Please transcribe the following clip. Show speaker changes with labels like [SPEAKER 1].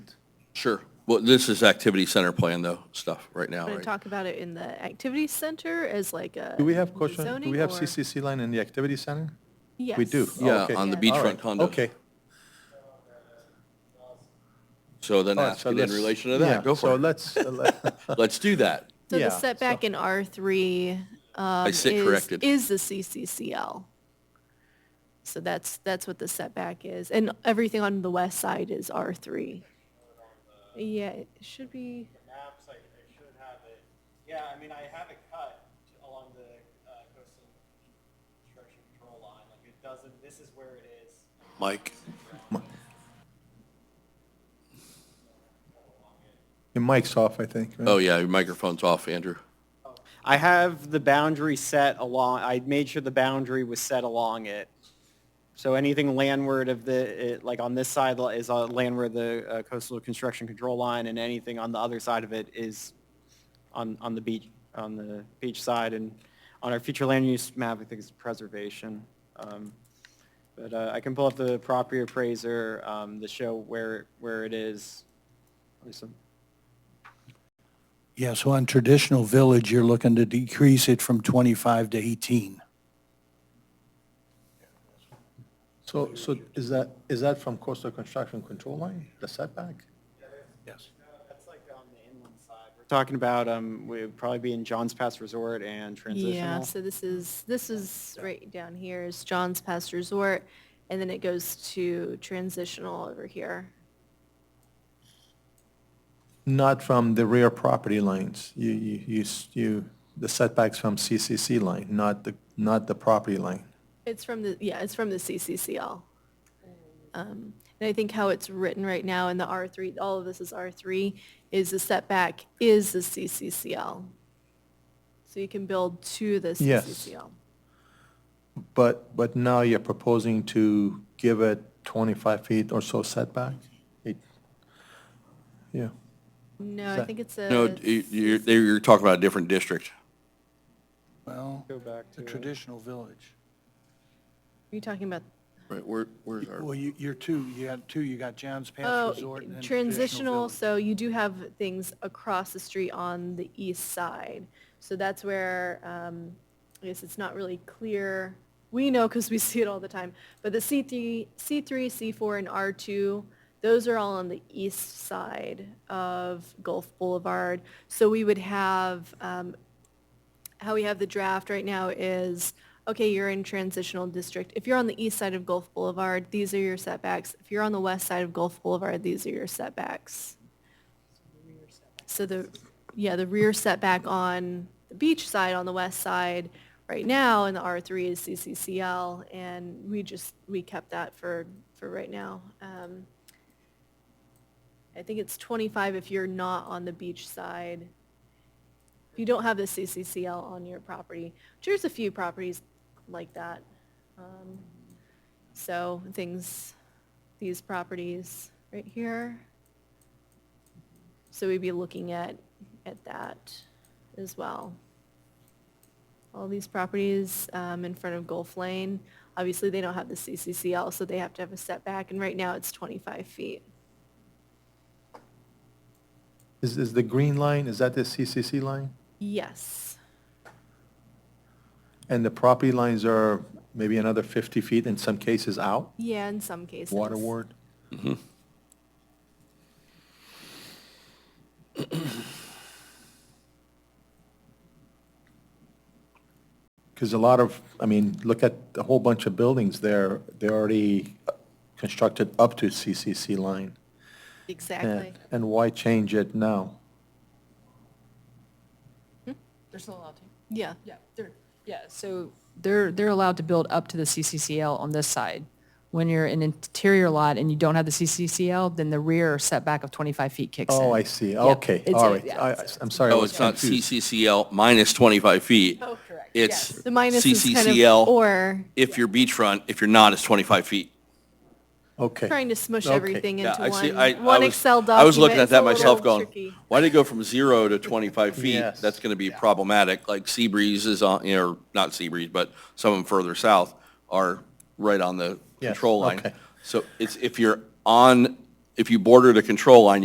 [SPEAKER 1] Sure. Well, this is activity center plan though, stuff right now,
[SPEAKER 2] Want to
[SPEAKER 1] right?
[SPEAKER 2] talk about it in the activity center as like a.
[SPEAKER 3] Do we have question, do we
[SPEAKER 2] zoning
[SPEAKER 3] have
[SPEAKER 2] or-
[SPEAKER 3] CCC line in the activity center?
[SPEAKER 2] Yes.
[SPEAKER 3] We do. Oh,
[SPEAKER 1] Yeah,
[SPEAKER 3] okay.
[SPEAKER 1] on the
[SPEAKER 2] Yes.
[SPEAKER 1] beachfront
[SPEAKER 3] All right.
[SPEAKER 1] condos.
[SPEAKER 3] Okay.
[SPEAKER 1] So then
[SPEAKER 3] All right, Oh,
[SPEAKER 1] ask
[SPEAKER 3] so
[SPEAKER 1] it in
[SPEAKER 3] let's-
[SPEAKER 1] relation to
[SPEAKER 3] yeah,
[SPEAKER 1] that. Go
[SPEAKER 3] So
[SPEAKER 1] for it.
[SPEAKER 3] let's, uh, let-
[SPEAKER 1] Let's do that.
[SPEAKER 2] So
[SPEAKER 3] yeah,
[SPEAKER 2] the
[SPEAKER 3] so-
[SPEAKER 2] setback in R three. um,
[SPEAKER 1] I sit corrected.
[SPEAKER 2] Is the CCCL. So that's, that's what the setback is. And everything on the west side is R three. Yeah, it should be,
[SPEAKER 4] maps, I, I should have it. Yeah, I mean, I have it cut to- along the uh, coastal construction control line, like it doesn't, this is where it is.
[SPEAKER 1] Mike?
[SPEAKER 3] your mic's off, I think. right?
[SPEAKER 1] Oh, yeah, your microphone's off, Andrew.
[SPEAKER 4] I have the boundary set along, I made sure the boundary was set along it. So anything landward of the, it- like on this side li- is uh, landward of the uh, coastal construction control line, and anything on the other side of it is on, on the beach, on the beach side, and on our future land use map, I think it's preservation. Um, But uh, I can pull up the property appraiser um, to show where, where it is. There's some-
[SPEAKER 5] Yeah, so on traditional village, you're looking to decrease it from 25 to 18.
[SPEAKER 3] So, so is that, is that from coastal construction control line, the setback?
[SPEAKER 5] Yes.
[SPEAKER 4] That's like on the inland side. We're talking about, um, we'd probably be in John's Pass Resort and
[SPEAKER 2] yeah,
[SPEAKER 4] transitional.
[SPEAKER 2] so this is, this is right down here is John's Pass Resort. And then it goes to transitional over here.
[SPEAKER 3] Not from the rear property lines. You, you, you, s- you, the setbacks from CCC line, not the, not the property line.
[SPEAKER 2] It's from the, yeah, it's from the CCCL. Um, And I think how it's written right now in the R3, all of this is R3, is the setback is the CCCL. So you can build to the
[SPEAKER 3] Yes.
[SPEAKER 2] CCCL.
[SPEAKER 3] But, but now you're proposing to give it 25 feet or so setback? It- Yeah,
[SPEAKER 2] No, I
[SPEAKER 3] Set-
[SPEAKER 2] think it's a.
[SPEAKER 1] No, you- you're, they- you're talking about a different district.
[SPEAKER 5] Well,
[SPEAKER 4] Go back
[SPEAKER 5] the
[SPEAKER 4] to it.
[SPEAKER 5] traditional village.
[SPEAKER 2] You're talking about,
[SPEAKER 1] Right, where, where's our?
[SPEAKER 5] Well, you, you're two, you got two, you got John's Pass
[SPEAKER 2] oh,
[SPEAKER 5] Resort and then
[SPEAKER 2] transitional,
[SPEAKER 5] traditional village.
[SPEAKER 2] so you do have things across the street on the east side. So that's where, um, I guess it's not really clear. We know because we see it all the time. But the C3, C3, C4, and R2, those are all on the east side of Gulf Boulevard. So we would have, um, how we have the draft right now is, okay, you're in transitional district. If you're on the east side of Gulf Boulevard, these are your setbacks. If you're on the west side of Gulf Boulevard, these are your setbacks. So the, yeah, the rear setback on the beach side, on the west side, right now in the R3 is CCCL, and we just, we kept that for, for right now. Um, I think it's 25 if you're not on the beach side, if you don't have the CCCL on your property. There's a few properties like that. Um, So things, these properties right here. So we'd be looking at, at that as well. All these properties um, in front of Gulf Lane, obviously they don't have the CCCL, so they have to have a setback, and right now it's 25 feet.
[SPEAKER 3] is, is the green line, is that the CCC line?
[SPEAKER 2] Yes,
[SPEAKER 3] And the property lines are maybe another 50 feet in some cases out,
[SPEAKER 2] yeah, in some cases.
[SPEAKER 3] waterward? Mm-hmm. Because a lot of, I mean, look at a whole bunch of buildings there, they're already constructed up to CCC line.
[SPEAKER 2] Exactly.
[SPEAKER 3] And and why change it now?
[SPEAKER 6] They're still allowed to,
[SPEAKER 2] Yeah,
[SPEAKER 6] yeah, they're, yeah, so they're, they're allowed to build up to the CCCL on this side. When you're an interior lot and you don't have the CCCL, then the rear setback of 25 feet kicks in.
[SPEAKER 3] Oh, I see,
[SPEAKER 6] Yeah,
[SPEAKER 3] okay,
[SPEAKER 6] it's-
[SPEAKER 3] all right.
[SPEAKER 6] yeah,
[SPEAKER 3] I-
[SPEAKER 6] it's-
[SPEAKER 3] I'm sorry, I
[SPEAKER 1] Oh,
[SPEAKER 3] was
[SPEAKER 1] it's not
[SPEAKER 3] confused.
[SPEAKER 1] CCCL minus 25 feet.
[SPEAKER 6] Oh, correct.
[SPEAKER 1] It's
[SPEAKER 2] the minus is kind of,
[SPEAKER 1] CCCL
[SPEAKER 2] or
[SPEAKER 1] if you're beachfront, if you're not, it's 25 feet.
[SPEAKER 3] Okay.
[SPEAKER 2] trying to smush
[SPEAKER 3] Okay.
[SPEAKER 2] everything
[SPEAKER 1] Yeah,
[SPEAKER 2] into
[SPEAKER 1] I see,
[SPEAKER 2] one,
[SPEAKER 1] I, I
[SPEAKER 2] one
[SPEAKER 1] was-
[SPEAKER 2] Excel document.
[SPEAKER 1] I was looking at
[SPEAKER 2] It's a
[SPEAKER 1] that
[SPEAKER 2] little
[SPEAKER 1] myself going,
[SPEAKER 2] tricky.
[SPEAKER 1] why did it go from zero to 25 feet?
[SPEAKER 3] Yes.
[SPEAKER 1] That's going to be problematic, like Seabreeze is on, you know, not Seabreeze, but some of them further south are right on the
[SPEAKER 3] Yes,
[SPEAKER 1] control line.
[SPEAKER 3] okay.
[SPEAKER 1] So it's, if you're on, if you border the control line,